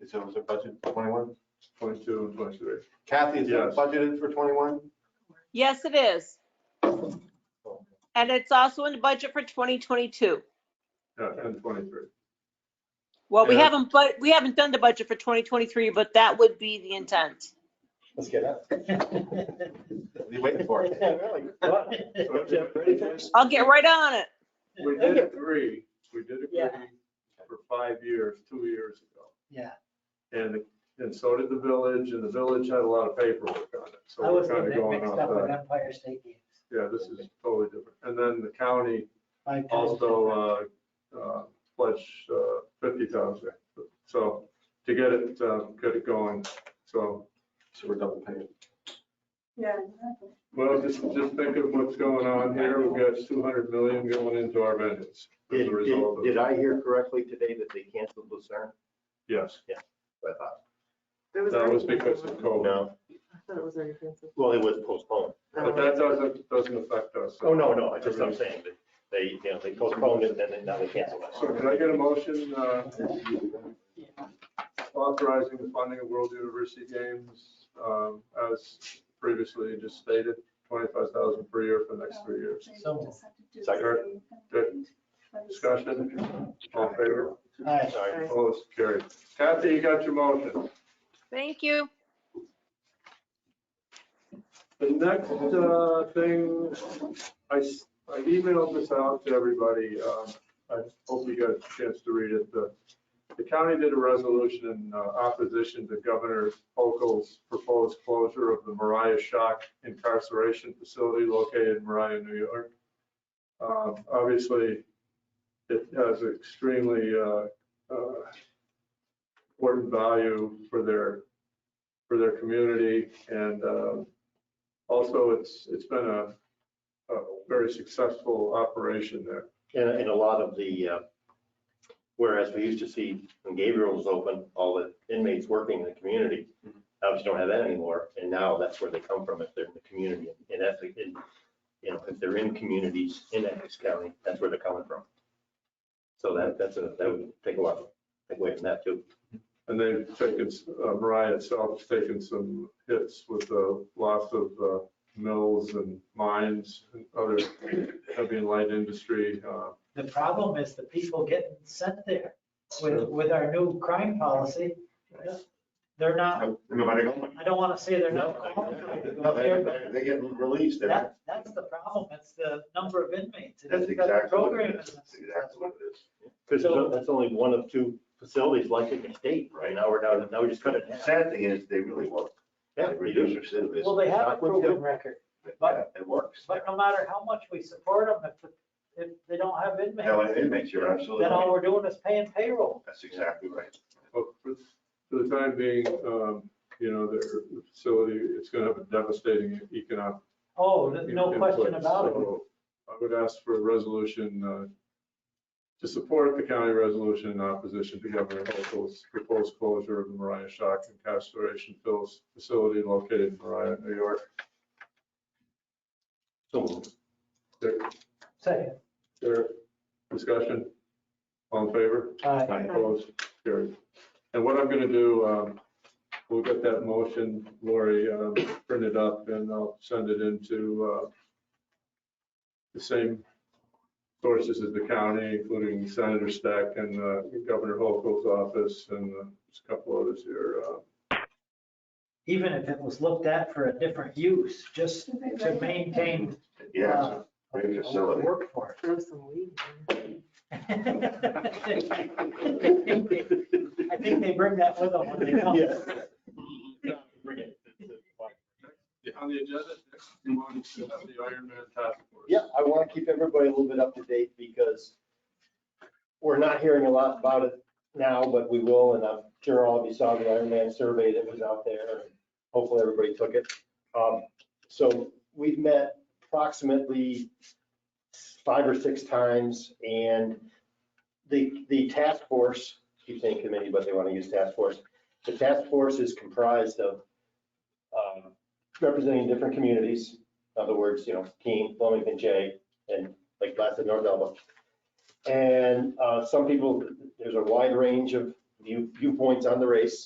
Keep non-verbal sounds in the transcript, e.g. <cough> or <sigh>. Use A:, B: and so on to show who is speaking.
A: Is it, was it budgeted for twenty-one?
B: Twenty-two and twenty-three.
A: Kathy, is it
B: Yes.
A: budgeted for twenty-one?
C: Yes, it is. And it's also in the budget for 2022.
B: Yeah, and twenty-three.
C: Well, we
B: Yeah.
C: haven't, but we haven't done the budget for 2023, but that would be the intent.
D: Let's get up.
A: What are you waiting for?
C: I'll get right on it.
B: We did agree, we did agree
D: Yeah.
B: for five years, two years ago.
D: Yeah,
B: And, and so did the village, and the village had a lot of paperwork on it,
D: I
B: so we're
D: was
B: kind of going
D: mixed
B: off
D: up with
B: that.
D: Empire State Games.
B: Yeah, this is totally different. And then the county
D: My God.
B: also uh, uh, pledged uh, 50,000. So to get it, uh, get it going. So,
A: So we're double paying.
E: Yeah.
B: well, just, just think of what's going on here. We've got 200 million going into our venues as
F: Did,
B: a result
F: did-
B: of,
F: did I hear correctly today that they canceled Lucerne?
B: yes.
F: I thought-
B: That was because of COVID.
F: No,
E: I thought it was already canceled.
F: well, it was postponed.
B: But that doesn't, doesn't affect us.
F: Oh, no, no, I just, I'm saying that they, you know, they postponed it and then now they canceled
B: So
F: it.
B: can I get a motion uh,
F: uh,
B: authorizing the funding of World University Games um, as previously just stated, 25,000 per year for the next three years?
D: So,
B: Second. Good. Discussion, all in favor,
D: hi,
F: Sorry.
B: opposed, carried. Kathy, you got your motion.
C: Thank you.
B: The next uh, thing, I s- I emailed this out to everybody. um, I hope you got a chance to read it. The the county did a resolution in uh, opposition to Governor Hochul's proposed closure of the Mariah Shock incarceration facility located in Mariah, New York. Um, Obviously, it has extremely uh, uh, important value for their, for their community. And um, also, it's, it's been a, a very successful operation there.
F: And, and a lot of the, uh, whereas we used to see when Gabriel was open, all the inmates working in the community, obviously don't have that anymore. And now that's where they come from, if they're in the community, in Essex, in, you know, if they're in communities in Essex County, that's where they're coming from. So that, that's a, that would take a lot, take away from that too.
B: And they've taken, uh, Mariah itself has taken some hits with the loss of uh, mills and mines and other heavy and light industry. uh,
D: the problem is the people getting sent there with, with our new crime policy. They're not,
F: Nobody
D: I don't want to say they're not qualified, but they're,
F: They get released.
D: that, that's the problem, it's the number of inmates. It's
F: That's
D: the
F: exactly what
D: program
F: it is.
D: isn't
F: That's
D: successful.
F: exactly what it is. Because that's only one of two facilities like it in the state, right? Now we're down, now we just cut it. in half.
G: Sad thing is, they really work.
F: Yeah,
G: They
F: we do.
G: reduce recidivism.
D: Well, they have a
F: Not with
D: proven record,
G: Yeah, It works.
D: but no matter how much we support them, if, if they don't have inmates,
G: No, it it makes you absolutely,
D: then all
G: right.
D: we're doing is paying payroll.
G: that's exactly right.
B: But oh, for for the time being, um, you know, their facility, it's going to have a devastating economic
D: Oh, there's no
B: in
D: question
B: place.
D: about it.
B: So I would ask for a resolution uh, to support the county resolution in opposition to Governor Hochul's proposed closure of the Mariah Shock incarceration Phil's facility located in Mariah, New York.
F: So moved.
B: There,
D: Second,
B: there, discussion? All in favor?
D: aye.
F: Aye.
B: Opposed, carried. And what I'm gonna do, um, we'll get that motion, Lori, um, print it up and I'll send it into, uh, the same sources as the county, including Senator Stack and uh, Governor Hochul's office and uh, just a couple others here. uh,
D: even if it was looked at for a different use, just to maintain.
G: Yes,
D: uh, <laughs>
G: great
D: a
G: facility.
D: Workforce.
E: Throw some weed in
D: I think they bring that with them when they come.
B: On the agenda, next, we want to have the Ironman Task Force.
F: Yeah, I want to keep everybody a little bit up to date because we're not hearing a lot about it now, but we will, and I'm sure all of you saw the Iron Man survey that was out there. Hopefully, everybody took it. Um, So we've met approximately five or six times, and the, the task force, keep saying committee, but they want to use task force. The task force is comprised of um, representing different communities, in other words, you know, Keene, Wilmington, Jay, and like last in North Elba. And uh, some people, there's a wide range of view- viewpoints on the race.